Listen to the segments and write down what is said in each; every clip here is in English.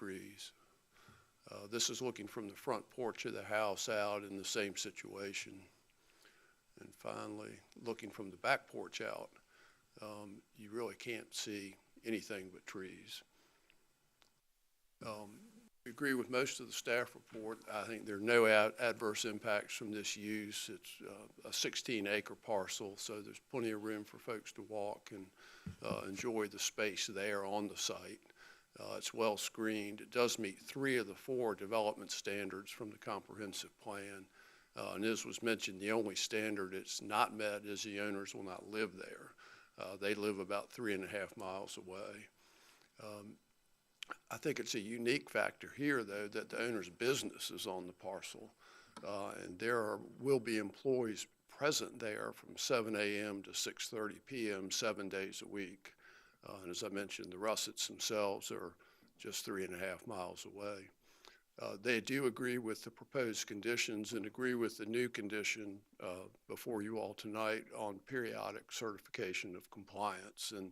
trees. Uh, This is looking from the front porch of the house out in the same situation. And finally, looking from the back porch out, um, you really can't see anything but trees. Um, we Agree with most of the staff report. I think there are no ad- adverse impacts from this use. It's uh, a 16-acre parcel, so there's plenty of room for folks to walk and uh, enjoy the space there on the site. Uh, It's well screened. It does meet three of the four development standards from the comprehensive plan. Uh, And as was mentioned, the only standard it's not met is the owners will not live there. Uh, They live about three and a half miles away. Um, I think it's a unique factor here, though, that the owner's business is on the parcel. Uh, And there are, will be employees present there from seven AM to six-thirty PM, seven days a week. Uh, And as I mentioned, the Russets themselves are just three and a half miles away. Uh, They do agree with the proposed conditions and agree with the new condition uh, before you all tonight on periodic certification of compliance and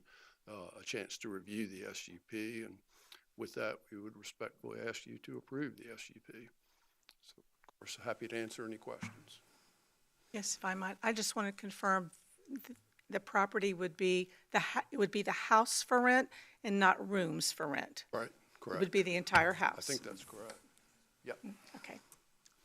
uh, a chance to review the SUP. And with that, we would respectfully ask you to approve the SUP. So, of course, happy to answer any questions. Yes, if I might, I just want to confirm, th- the property would be, the, ho- it would be the house for rent and not rooms for rent. Right, It would correct. be the entire house. I think that's correct. Yep, Okay,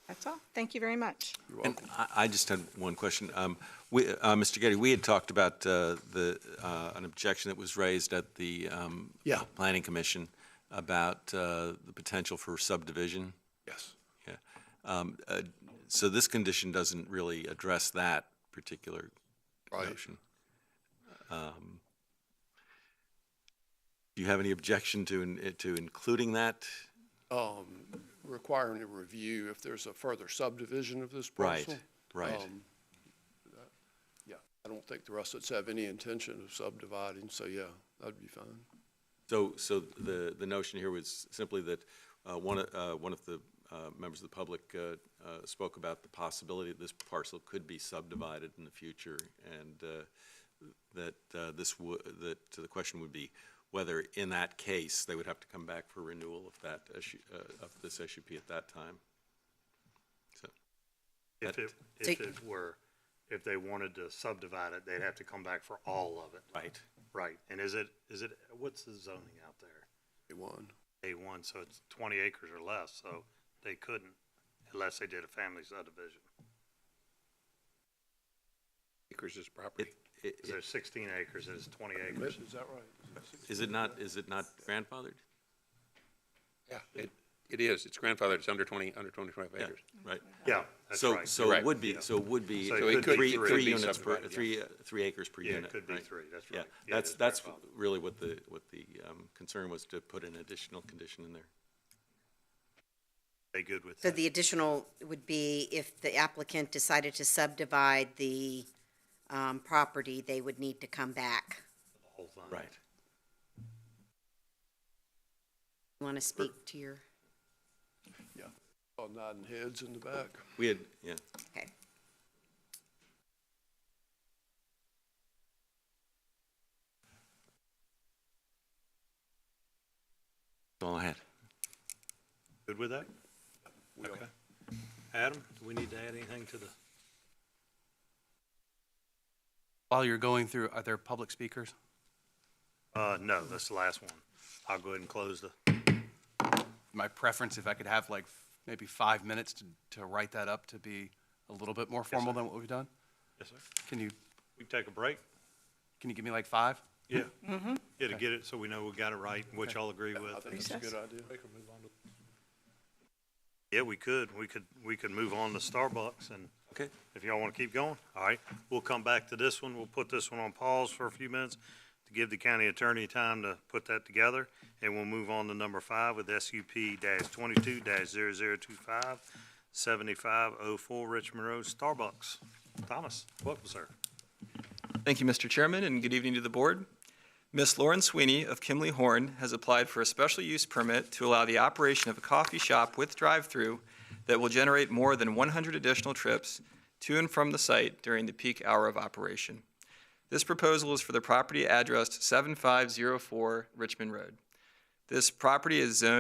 that's all. Thank you very much. you're And welcome. I, I just had one question. Um, we, uh, Mr. Getty, we had talked about, uh, the, uh, an objection that was raised at the, um, Yeah. Planning Commission about, uh, the potential for subdivision. Yes. Yeah. Um, uh, so this condition doesn't really address that particular Right. notion. Um, do you have any objection to, in- to including that? um, requiring a review if there's a further subdivision of this Right, parcel. right. Um, that- Yeah, I don't think the Russets have any intention of subdividing, so yeah, that'd be fine. So, so the, the notion here was simply that uh, one, of- uh, one of the uh, members of the public uh, uh, spoke about the possibility that this parcel could be subdivided in the future, and uh, that uh, this, wo- that the question would be whether, in that case, they would have to come back for renewal of that issue, uh, of this SUP at that time. So, If But- it, if it were, if they wanted to subdivide it, they'd have to come back for all of it. right, Right, and is it, is it, what's the zoning out there? Day one. A one, so it's twenty acres or less, so they couldn't unless they did a family subdivision. acres is It- property. it- 'Cause There's sixteen acres, and it's twenty acres. Is that right? Is it not, is it not grandfathered? Yeah, it, it is. It's grandfathered. It's under twenty, under twenty-five Yeah, acres. right. Yeah, that's So, right. so it Right. would be, so it would be So it three, could three be three. three Could be units per, subdivided, yeah. three, uh, three acres per Yeah, unit. it could be right. three, that's Yeah, right. Yeah, that's, it is that's grandfathered. really what the, what the um, concern was, to put an additional condition in there. They good with So that? the additional would be if the applicant decided to subdivide the um, property, they would need to come back. whole thing? Want to speak to your, Yeah. All nodding heads in the back. We had, yeah, okay. that's all I had. Good with that? We all- Okay. Adam, do we need to add anything to the, While you're going through, are there public speakers? uh, no, that's the last one. I'll go ahead and close the, My preference, if I could have like f- maybe five minutes to, to write that up to be a little bit more formal than what we've done? yes, sir. Can you, We can take a break? can you give me like five? Yeah. Yeah, to get it, so we know we got it right, which y'all agree I with. think that's a Recess. good idea. Yeah, we could, we could, we could move on to Starbucks and Okay. if y'all want to keep going, all right. We'll come back to this one. We'll put this one on pause for a few minutes to give the county attorney time to put that together. And we'll move on to number five with SUP dash twenty-two dash zero zero two five seventy-five oh four Richmond Road, Starbucks. Thomas, welcome, sir. Thank you, Mr. Chairman, and good evening to the board. Ms. Lauren Sweeney of Kimley Horn has applied for a special use permit to allow the operation of a coffee shop with drive-through that will generate more than 100 additional trips to and from the site during the peak hour of operation. This proposal is for the property addressed 7504 Richmond Road. This property is zoned